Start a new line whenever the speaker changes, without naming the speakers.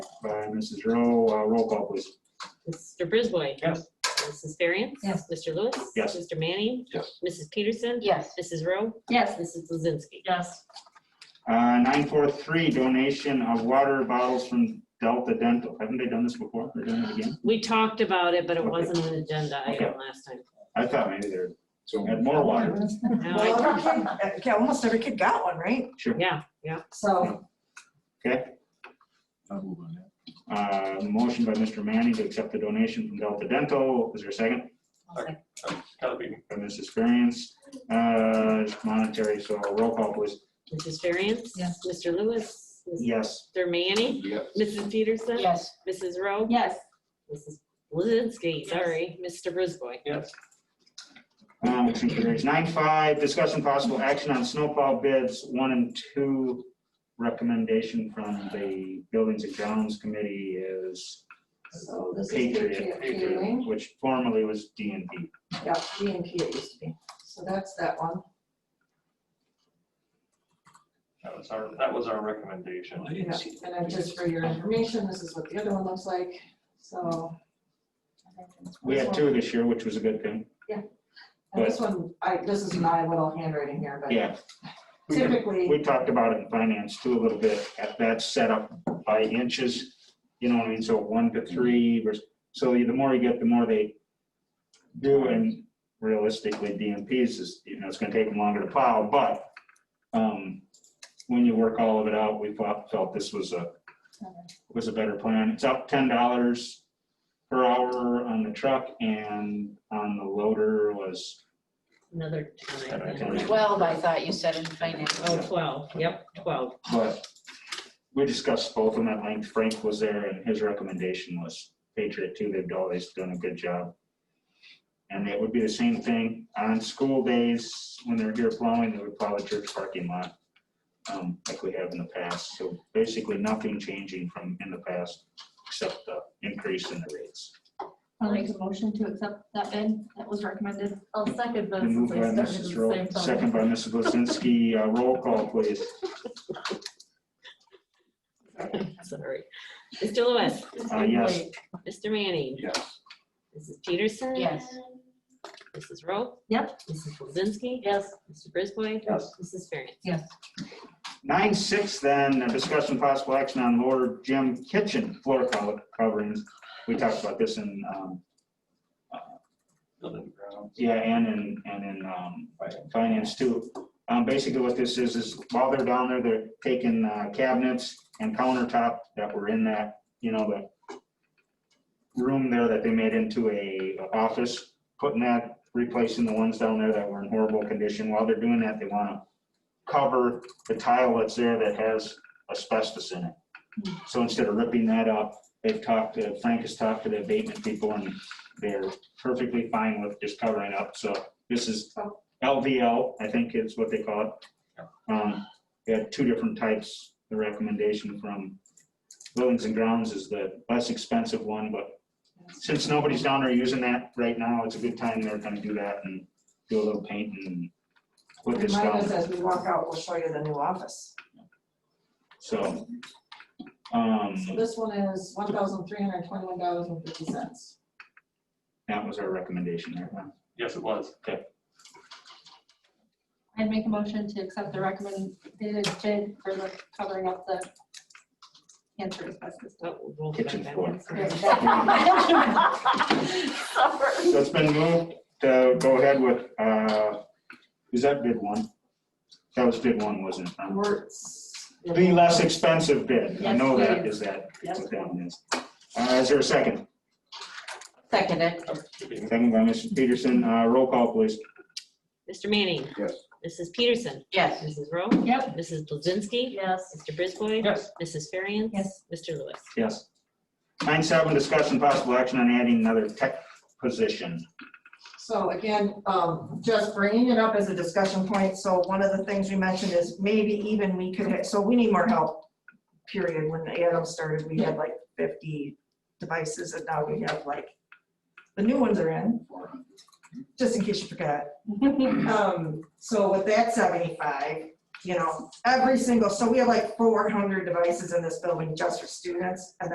by Mrs. Rowe. Uh, Roll call, please.
Mr. Brisboy.
Yes.
Mrs. Ferriant.
Yes.
Mr. Lewis.
Yes.
Mr. Manning.
Yes.
Mrs. Peterson.
Yes.
Mrs. Rowe.
Yes.
Mrs. Blazinski.
Yes.
Uh, Nine four three, donation of water bottles from Delta Dental. Haven't they done this before? They're doing it again?
We talked about it, but it wasn't an agenda item last time.
I thought maybe they're,
So
had more water.
No,
Well,
I-
every kid- uh, yeah, almost every kid got one, right?
Sure.
Yeah, yeah.
So,
Okay.
I'll move on that.
Uh, Motion by Mr. Manning to accept the donation from Delta Dental. Is there a second?
Gotta be,
By Mrs. Ferriens. Uh, it's Monetary, so roll call, please.
Mrs. Ferriant.
Yes.
Mr. Lewis.
Yes.
Mr. Manning.
Yes.
Mrs. Peterson.
yes.
Mrs. Rowe.
Yes.
Mrs. Blazinski, sorry, Mr. Brisboy.
yes,
Uh, Motion carries. Nine five, discussion possible action on snowplow bids, one and two. Recommendation from the Buildings and Grounds Committee is
So this is
Patriot,
Patriot Fueling.
which formerly was D and D.
Yeah, G and P it used to be. So that's that one.
that was our, that was our recommendation.
I didn't
Yeah.
see
And then just for your information, this is what the other one looks like, so.
We had two this year, which was a good thing.
And this one, I, this is my little handwriting here, but
Yeah,
typically,
we talked about it in finance too a little bit. At that setup by inches, you know what I mean? So one to three versus, so the more you get, the more they do. And realistically, DMPs is, you know, it's gonna take them longer to plow, but um, when you work all of it out, we felt felt this was a was a better plan. It's up ten dollars per hour on the truck and on the loader was,
Another time,
Another
yeah.
time.
Twelve, I thought you said in finance.
Oh, 12, yep, 12.
but we discussed both of them at length. Frank was there and his recommendation was Patriot too. They've always done a good job. And it would be the same thing on school days when they're here plowing, they would plow the church parking lot um, like we have in the past. So basically nothing changing from in the past except the increase in the rates.
I'll make a motion to accept that bid that was recommended. I'll second that.
Been moved by Mrs. Rowe, second by Mrs. Blazinski. Uh, Roll call, please.
Sorry. Mr. Lewis.
Uh, Yes.
Mr. Manning.
Yes.
Mrs. Peterson.
Yes.
Mrs. Rowe.
Yep.
Mrs. Blazinski.
yes,
Mr. Brisboy.
Yes.
Mrs. Ferriant.
yes.
Nine six then, uh, discussion possible action on lower gym kitchen floor cover- coverings. We talked about this in, um,
Building grounds.
yeah, and in, and in um,
Right.
finance too. Um, Basically what this is, is while they're down there, they're taking uh, cabinets and countertop that were in that, you know, the room there that they made into a a office, putting that, replacing the ones down there that were in horrible condition. While they're doing that, they want to cover the tile that's there that has asbestos in it. So instead of ripping that up, they've talked, to Frank has talked to the abatement people and they're perfectly fine with just covering up. So this is LVL, I think is what they call it. Um, They had two different types. The recommendation from Buildings and Grounds is the less expensive one, but since nobody's down there using that right now, it's a good time they're gonna do that and do a little painting and put this down.
Remind us as we walk out, we'll show you the new office.
So,
So
um,
this one is one thousand three hundred twenty-one dollars and fifty cents.
that was our recommendation there. huh?
Yes, it was.
I'd make a motion to accept the recommended bid for the covering up the cancer asbestos.
Oh, we'll
Kitchen
back
floor.
that one.
So it's been moved to go ahead with, uh, is that bid one? That was bid one, wasn't it? Um,
Wertz.
The less expensive bid. I know
Yes,
that
it
is that.
Yes.
what that one is. Uh, is there a second?
Second it.
Should be-
Second by Mr. Peterson. Uh, roll call, please.
Mr. Manning.
Yes.
Mrs. Peterson.
Yes.
Mrs. Rowe.
Yep.
Mrs. Blazinski.
Yes.
Mr. Brisboy.
Yes.
Mrs. Ferriant.
Yes.
Mr. Lewis.
Yes. Nine seven, discussion possible action on adding another tech position.
So again, um, just bringing it up as a discussion point, so one of the things we mentioned is maybe even we could, ha- so we need more help. Period, when Adam started, we had like fifty devices and now we have like, the new ones are in, just in case you forgot. Um, so with that seventy-five, you know, every single, so we have like four hundred devices in this building just for students and